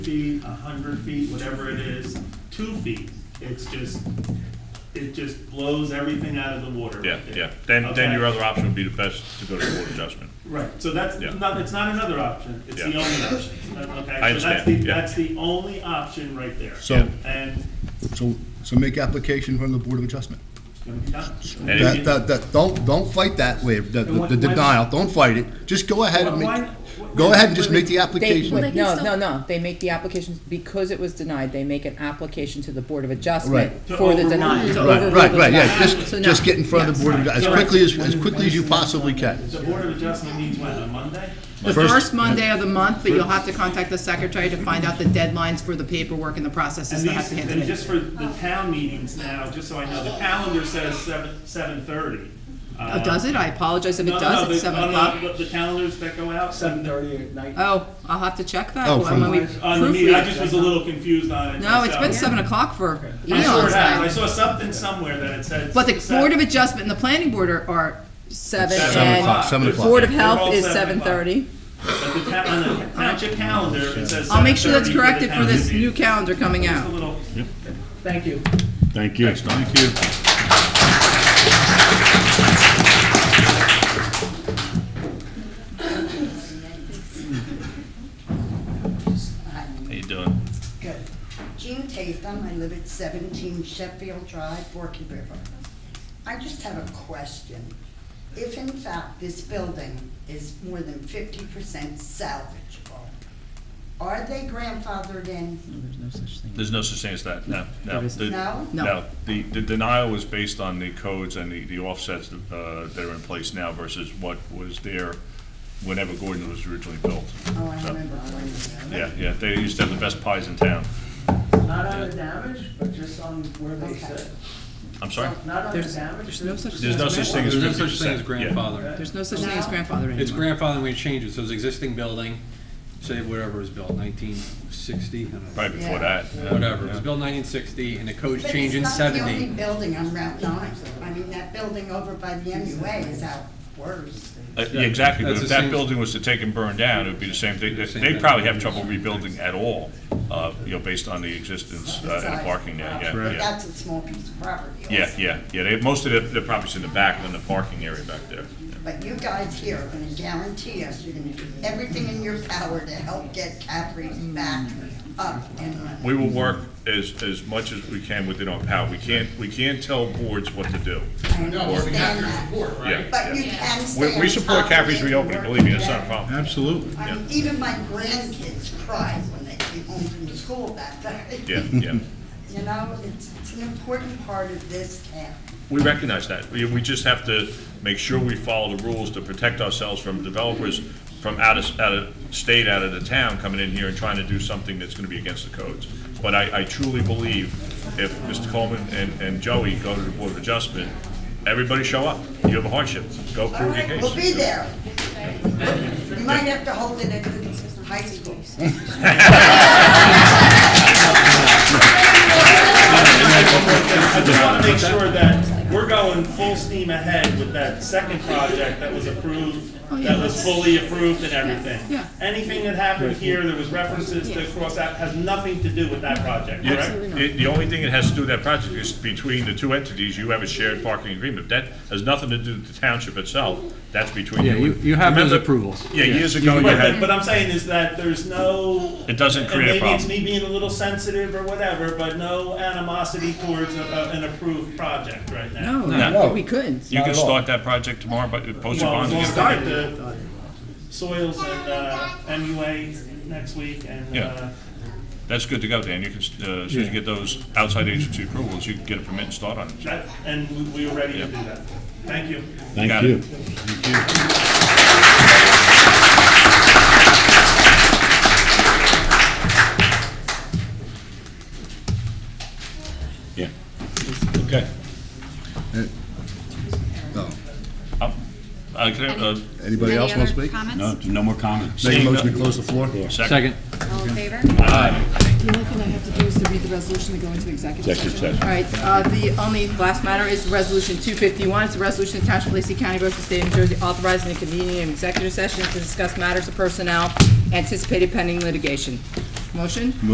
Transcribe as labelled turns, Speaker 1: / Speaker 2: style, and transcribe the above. Speaker 1: feet, a hundred feet, whatever it is, two feet. It's just, it just blows everything out of the water.
Speaker 2: Yeah, yeah. Then, then your
Speaker 1: Okay?
Speaker 2: other option would be to best to go to the board adjustment.
Speaker 1: Right, so that's
Speaker 2: Yeah.
Speaker 1: not, it's not another option, it's the
Speaker 2: Yeah.
Speaker 1: only option, okay? So
Speaker 2: I
Speaker 1: that's
Speaker 2: understand,
Speaker 1: the,
Speaker 2: yeah.
Speaker 1: that's the only option right there.
Speaker 3: So-
Speaker 1: And
Speaker 3: So, so make application from the Board of Adjustment.
Speaker 1: it's gonna be done.
Speaker 2: And if
Speaker 3: That,
Speaker 2: you-
Speaker 3: that, that, don't, don't fight that waiver, the,
Speaker 1: And what-
Speaker 3: the denial, don't fight it, just go ahead and
Speaker 1: Why-
Speaker 3: make,
Speaker 1: why-
Speaker 3: go ahead and just make the
Speaker 4: They,
Speaker 3: application.
Speaker 4: no,
Speaker 5: But they can
Speaker 4: no,
Speaker 5: still-
Speaker 4: no, they make the application, because it was denied, they make an application to the Board of Adjustment
Speaker 3: Right.
Speaker 1: To
Speaker 4: for the
Speaker 1: overrule-
Speaker 4: denial.
Speaker 1: to
Speaker 4: to
Speaker 1: overrule
Speaker 3: Right,
Speaker 4: overrule
Speaker 3: right,
Speaker 4: the
Speaker 3: right, yeah,
Speaker 4: denial. So
Speaker 3: just,
Speaker 4: no.
Speaker 3: just get in front of the
Speaker 4: Yes.
Speaker 3: Board, of as quickly as, as quickly as you possibly can.
Speaker 1: The Board of Adjustment meets when, on Monday?
Speaker 4: The first Monday of the month, but you'll have to contact the secretary to find out the deadlines for the paperwork and the processes
Speaker 1: And
Speaker 4: that have
Speaker 1: these,
Speaker 4: to
Speaker 1: and
Speaker 4: handle
Speaker 1: just
Speaker 4: it.
Speaker 1: for the town meetings now, just so I know, the calendar says seven, seven thirty.
Speaker 4: Oh, does it? I apologize if it
Speaker 1: No, no,
Speaker 4: does,
Speaker 1: the- oh,
Speaker 4: it's seven
Speaker 1: no, no,
Speaker 4: o'clock.
Speaker 1: The the calendars that go out,
Speaker 6: seven thirty at night.
Speaker 4: Oh, I'll have to check that
Speaker 3: Oh,
Speaker 4: when we
Speaker 3: from-
Speaker 1: on the meeting, I
Speaker 4: proofread.
Speaker 1: just was a little confused on it.
Speaker 4: No, it's
Speaker 1: myself.
Speaker 4: been seven o'clock for
Speaker 1: I saw
Speaker 4: eons
Speaker 1: it out.
Speaker 4: now.
Speaker 1: I saw something somewhere that it said.
Speaker 4: But the
Speaker 1: seven.
Speaker 4: Board of Adjustment and the Planning Board are, are seven
Speaker 1: Seven
Speaker 3: o'clock,
Speaker 4: and
Speaker 3: seven
Speaker 1: They're
Speaker 3: o'clock.
Speaker 4: Board of
Speaker 1: all
Speaker 4: Health is
Speaker 1: seven
Speaker 4: seven
Speaker 1: o'clock.
Speaker 4: thirty.
Speaker 1: But the ta- on the township calendar, it says.
Speaker 4: I'll make sure that's
Speaker 1: 7:30
Speaker 4: corrected
Speaker 1: the
Speaker 4: for this
Speaker 1: township
Speaker 4: new
Speaker 1: meeting.
Speaker 4: calendar coming
Speaker 1: Just a
Speaker 4: out.
Speaker 1: little-
Speaker 6: Thank you.
Speaker 2: Thank you. Thank you. How you doing?
Speaker 7: Good. Jean Tatham, I live at seventeen Sheffield Drive, Forky River. I just have a question. If in fact this building is more than fifty percent salvageable, are they grandfathered in?
Speaker 2: There's no such thing as that, no, no.
Speaker 4: There is-
Speaker 2: The-
Speaker 7: No?
Speaker 4: No.
Speaker 2: No, the, the denial was based on the codes and the, the offsets uh, that are in place now versus what was there whenever Gordon was originally built.
Speaker 7: Oh, I
Speaker 2: So,
Speaker 7: remember. when-
Speaker 2: Yeah, yeah, they used to have the best pies in town.
Speaker 6: Not on the damage, but just on where they
Speaker 7: Okay.
Speaker 6: sit.
Speaker 2: I'm sorry?
Speaker 6: Not on the
Speaker 4: There's-
Speaker 6: damage.
Speaker 4: there's no such
Speaker 2: There's no such thing as
Speaker 8: There's
Speaker 2: fifty
Speaker 8: no
Speaker 2: percent.
Speaker 8: such thing as grandfather.
Speaker 4: There's no such thing as grandfather anymore.
Speaker 8: It's grandfathering when it changes, so it's existing building, say whatever was built, nineteen sixty, I don't know.
Speaker 2: Probably before
Speaker 7: Yeah.
Speaker 2: that. yeah,
Speaker 8: Whatever, it
Speaker 2: yeah.
Speaker 8: was built nineteen sixty, and the code's
Speaker 7: But
Speaker 8: changed in
Speaker 7: it's not the only
Speaker 8: seventy.
Speaker 7: building on Route nine. I mean, that building over by the MUA is out worse.
Speaker 2: Uh, yeah, Exactly, but
Speaker 8: That's
Speaker 2: if
Speaker 8: the
Speaker 2: that
Speaker 8: same-
Speaker 2: building was to take and burn down, it would be the same thing. They-
Speaker 8: Same
Speaker 2: They'd
Speaker 8: thing.
Speaker 2: probably have trouble rebuilding at all, uh, you know, based on the existence uh, and the parking there, yeah,
Speaker 7: But
Speaker 2: yeah.
Speaker 7: that's a small piece of property also.
Speaker 2: Yeah, yeah, yeah, they, most of their, their property's in the back, in the parking area back there.
Speaker 7: But you guys here are gonna guarantee us, you're gonna do everything in your power to help get Capri's back up and running.
Speaker 2: We will work as, as much as we can within our power. We can't, we can't tell boards what to do.
Speaker 7: I understand that.
Speaker 2: Yeah,
Speaker 7: But you
Speaker 2: yeah.
Speaker 7: can stay
Speaker 2: We, we
Speaker 7: on
Speaker 2: support
Speaker 7: top of
Speaker 2: Caffrey's
Speaker 7: it and
Speaker 2: reopening,
Speaker 7: work
Speaker 2: believe me,
Speaker 7: with
Speaker 2: that's not a
Speaker 7: them.
Speaker 2: problem.
Speaker 8: Absolutely.
Speaker 7: I mean, even my grandkids cry when they came home from school that day.
Speaker 2: Yeah, yeah.
Speaker 7: You know, it's, it's an important part of this town.
Speaker 2: We recognize that. We, we just have to make sure we follow the rules to protect ourselves from developers from out of, out of state, out of the town, coming in here and trying to do something that's gonna be against the codes. But I, I truly believe if Mr. Coleman and, and Joey go to the Board of Adjustment, everybody show up. You have a hardship, go
Speaker 7: All
Speaker 2: prove your
Speaker 7: right,
Speaker 2: case.
Speaker 7: we'll be there. You might have to hold it at the high school.
Speaker 1: I just wanna make sure that we're going full steam ahead with that second project that was approved, that was fully approved and everything.
Speaker 4: Oh, yeah.
Speaker 1: Anything that happened here, there was references to cross out, has nothing to do with that project,
Speaker 2: Yeah,
Speaker 1: correct?
Speaker 2: it- The only thing it has to do with that project is between the two entities, you have a shared parking agreement. That has nothing to do with the township itself, that's between you.
Speaker 8: Yeah, you- you have those
Speaker 2: Remember-
Speaker 8: approvals.
Speaker 2: Yeah,
Speaker 8: Yeah.
Speaker 2: years ago you
Speaker 1: Right, but,
Speaker 2: had,
Speaker 1: but I'm saying is that there's no.
Speaker 2: It doesn't
Speaker 1: and
Speaker 2: create a problem.
Speaker 1: Maybe it's me being a little sensitive or whatever, but no animosity towards a- a- an approved project right now.
Speaker 4: No, we couldn't.
Speaker 2: you can start that project tomorrow, but post your
Speaker 1: Well,
Speaker 2: bond.
Speaker 1: we'll
Speaker 2: again.
Speaker 1: start the soils and, uh, MUA next week and,
Speaker 2: Yeah.
Speaker 1: uh,
Speaker 2: That's good to go, Dan, you can, s- uh, as soon as you get those outside agency approvals, you can get a permit and start on it.
Speaker 1: that, and we, we were ready to do that. Thank you.
Speaker 2: Got it. Yeah, okay.
Speaker 3: Uh, No.
Speaker 2: Um, I can, uh,
Speaker 3: Anybody else want to speak?
Speaker 5: Any other
Speaker 9: No,
Speaker 5: comments?
Speaker 9: no more comments.
Speaker 3: Make a
Speaker 2: Seeing no-
Speaker 3: motion to close the floor?
Speaker 2: second.
Speaker 8: Second.
Speaker 5: All in favor?
Speaker 10: The only thing I have to do is to read the resolution to go into executive
Speaker 9: Executive
Speaker 10: session.
Speaker 9: session.
Speaker 4: All right, uh, the only last matter is Resolution 251. It's a resolution of Township of Lacey County, Ocean State, New Jersey, authorizing the convening of executive session to discuss matters of personnel anticipated pending litigation. Motion?